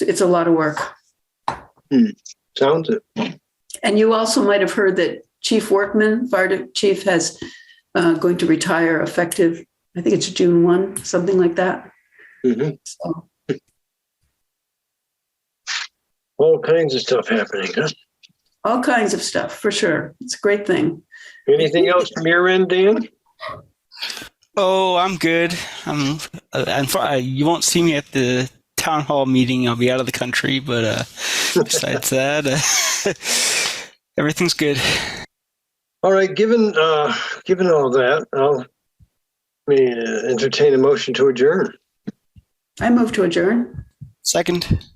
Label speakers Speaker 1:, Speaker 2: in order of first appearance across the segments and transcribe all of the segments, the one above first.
Speaker 1: It's- It's a lot of work.
Speaker 2: Sounds it.
Speaker 1: And you also might have heard that Chief Workman, Fire Chief, has uh, going to retire effective, I think it's June 1, something like that.
Speaker 2: Mhm.
Speaker 1: So,
Speaker 2: All kinds of stuff happening, huh?
Speaker 1: all kinds of stuff, for sure. It's a great thing.
Speaker 2: Anything else from your end, Dan?
Speaker 3: Oh, I'm good. I'm. Uh, I'm fi- uh, you won't see me at the town hall meeting. I'll be out of the country, but uh, besides that, uh, everything's good.
Speaker 2: All right, given, uh, given all that, I'll let me uh, entertain a motion to adjourn.
Speaker 1: I move to adjourn.
Speaker 3: Second.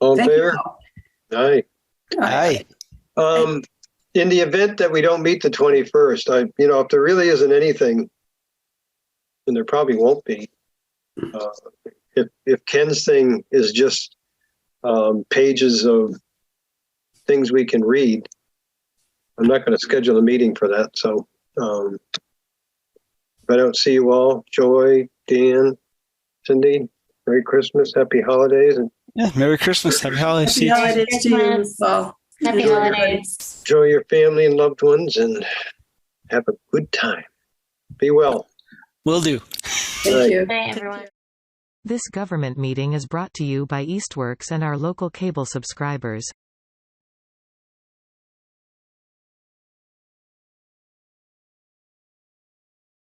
Speaker 2: All in
Speaker 1: Thank you
Speaker 2: favor?
Speaker 1: all.
Speaker 2: Aye.
Speaker 3: Aye.
Speaker 2: Um, in the event that we don't meet the twenty-first, I, you know, if there really isn't anything, and there probably won't be, uh, if, if Ken's thing is just, um, pages of things we can read, I'm not gonna schedule a meeting for that, so, um, if I don't see you all, Joy, Dan, Cindy, Merry Christmas, Happy Holidays, and
Speaker 3: Yeah. Merry Christmas. Happy holidays.
Speaker 1: Happy holidays to you
Speaker 4: Christmas.
Speaker 1: all.
Speaker 4: Happy
Speaker 1: Enjoy.
Speaker 4: holidays.
Speaker 2: enjoy your family and loved ones and have a good time. Be well.
Speaker 3: Will do.
Speaker 1: Thank you.
Speaker 4: Good night, everyone.
Speaker 5: This government meeting is brought to you by Eastworks and our local cable subscribers.